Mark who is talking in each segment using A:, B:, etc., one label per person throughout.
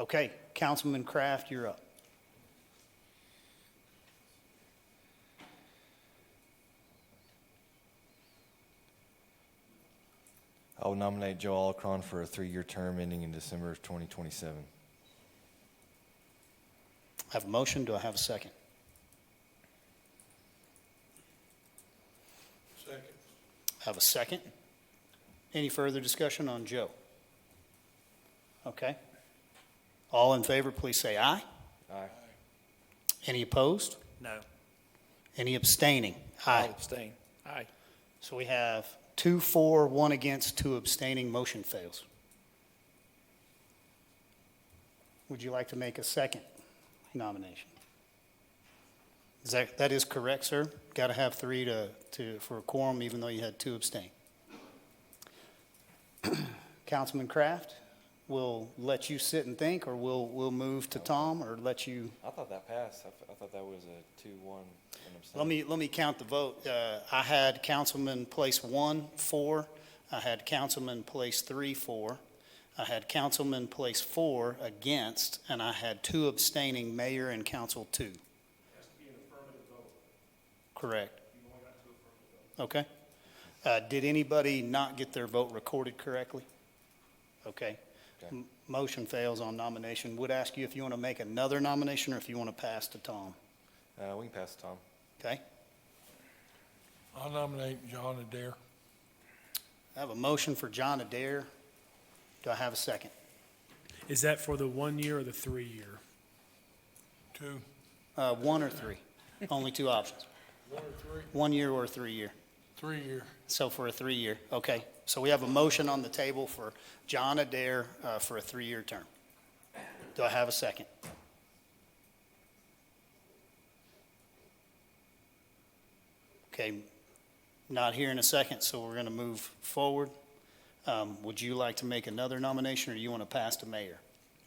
A: Okay, Councilman Kraft, you're up.
B: I will nominate Joe Alcron for a three-year term ending in December of 2027.
A: I have a motion, do I have a second?
C: Second.
A: I have a second. Any further discussion on Joe? Okay. All in favor, please say aye.
B: Aye.
A: Any opposed?
C: No.
A: Any abstaining?
C: I'll
A: Aye.
C: abstain. Aye.
A: So we have two for, one against, two abstaining, motion fails. Would you like to make a second nomination? Is that, that is correct, sir? Got to have three to, to, for a quorum, even though you had two abstain. Councilman Kraft, we'll let you sit and think, or we'll, we'll move to Tom, or let you,
B: I thought that passed. I, f- I thought that was a two-one.
A: Let me, let me count the vote. Uh, I had Councilman place one, four. I had Councilman place three, four. I had Councilman place four against, and I had two abstaining, mayor and council two. Correct. Okay. Uh, Did anybody not get their vote recorded correctly? Okay.
B: Okay.
A: M- Motion fails on nomination. Would ask you if you want to make another nomination or if you want to pass to Tom.
B: Uh, we can pass to Tom.
A: Okay?
D: I'll nominate John Adair.
A: I have a motion for John Adair. Do I have a second?
E: Is that for the one year or the three year?
D: Two.
A: Uh, one or three? Only two options,
D: One or three?
A: one year or three year.
D: Three year.
A: So for a three year, okay. So we have a motion on the table for John Adair uh, for a three year term. Do I have a second? Okay, not here in a second, so we're going to move forward. Um, would you like to make another nomination or you want to pass to mayor?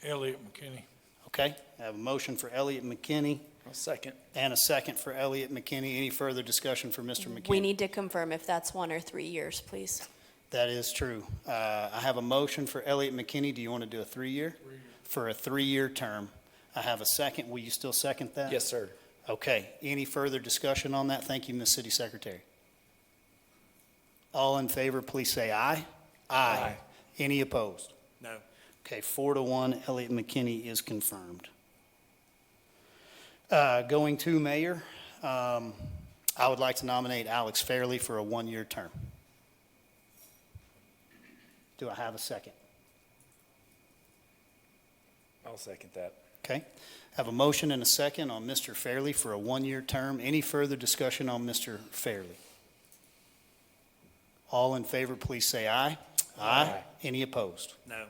D: Elliot McKinney.
A: Okay, I have a motion for Elliot McKinney
C: I'll second.
A: and a second for Elliot McKinney. Any further discussion for Mr.
F: We
A: McKinney?
F: need to confirm if that's one or three years, please.
A: That is true. Uh, I have a motion for Elliot McKinney. Do you want to do a three-year? For a three-year term. I have a second. Will you still second that?
C: Yes, sir.
A: Okay, any further discussion on that? Thank you, Ms. City Secretary. All in favor, please say aye.
C: Aye.
A: Any opposed?
C: No.
A: Okay, four to one, Elliot McKinney is confirmed. Uh, Going to mayor, um, I would like to nominate Alex Fairley for a one-year term. Do I have a second?
C: I'll second that.
A: Okay, have a motion and a second on Mr. Fairley for a one-year term. Any further discussion on Mr. Fairley? All in favor, please say aye.
C: Aye.
A: Any opposed?
C: No.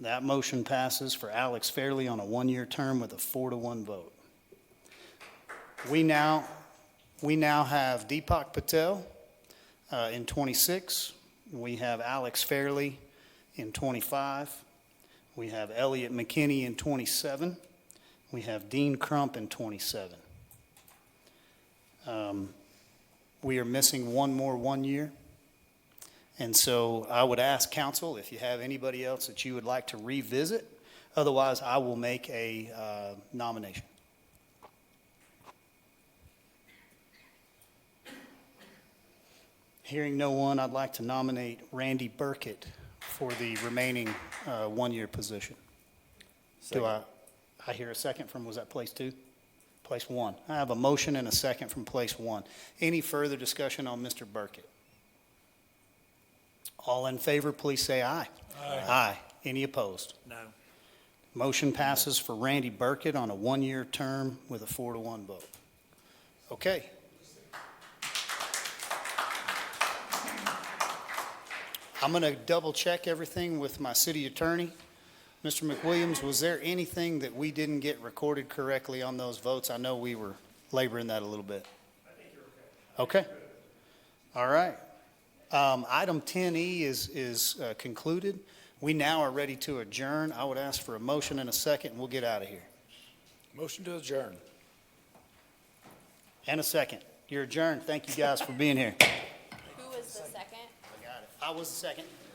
A: That motion passes for Alex Fairley on a one-year term with a four to one vote. We now, we now have Deepak Patel uh, in 26. We have Alex Fairley in 25. We have Elliot McKinney in 27. We have Dean Crump in 27. Um, We are missing one more one-year. And so I would ask council if you have anybody else that you would like to revisit. Otherwise, I will make a uh, nomination. Hearing no one, I'd like to nominate Randy Burkett for the remaining uh, one-year position. Do I, I hear a second from, was that place two? Place one. I have a motion and a second from place one. Any further discussion on Mr. Burkett? All in favor, please say aye. Aye. Any opposed?
C: No.
A: Motion passes for Randy Burkett on a one-year term with a four to one vote. Okay. I'm going to double-check everything with my city attorney. Mr. McWilliams, was there anything that we didn't get recorded correctly on those votes? I know we were laboring that a little bit. I think you're okay. Okay. All right. Um, Item 10E is, is uh, concluded. We now are ready to adjourn. I would ask for a motion and a second, and we'll get out of here.
C: Motion to adjourn.
A: And a second. You're adjourned. Thank you guys for being here.
F: Who was the second?
A: I was the second.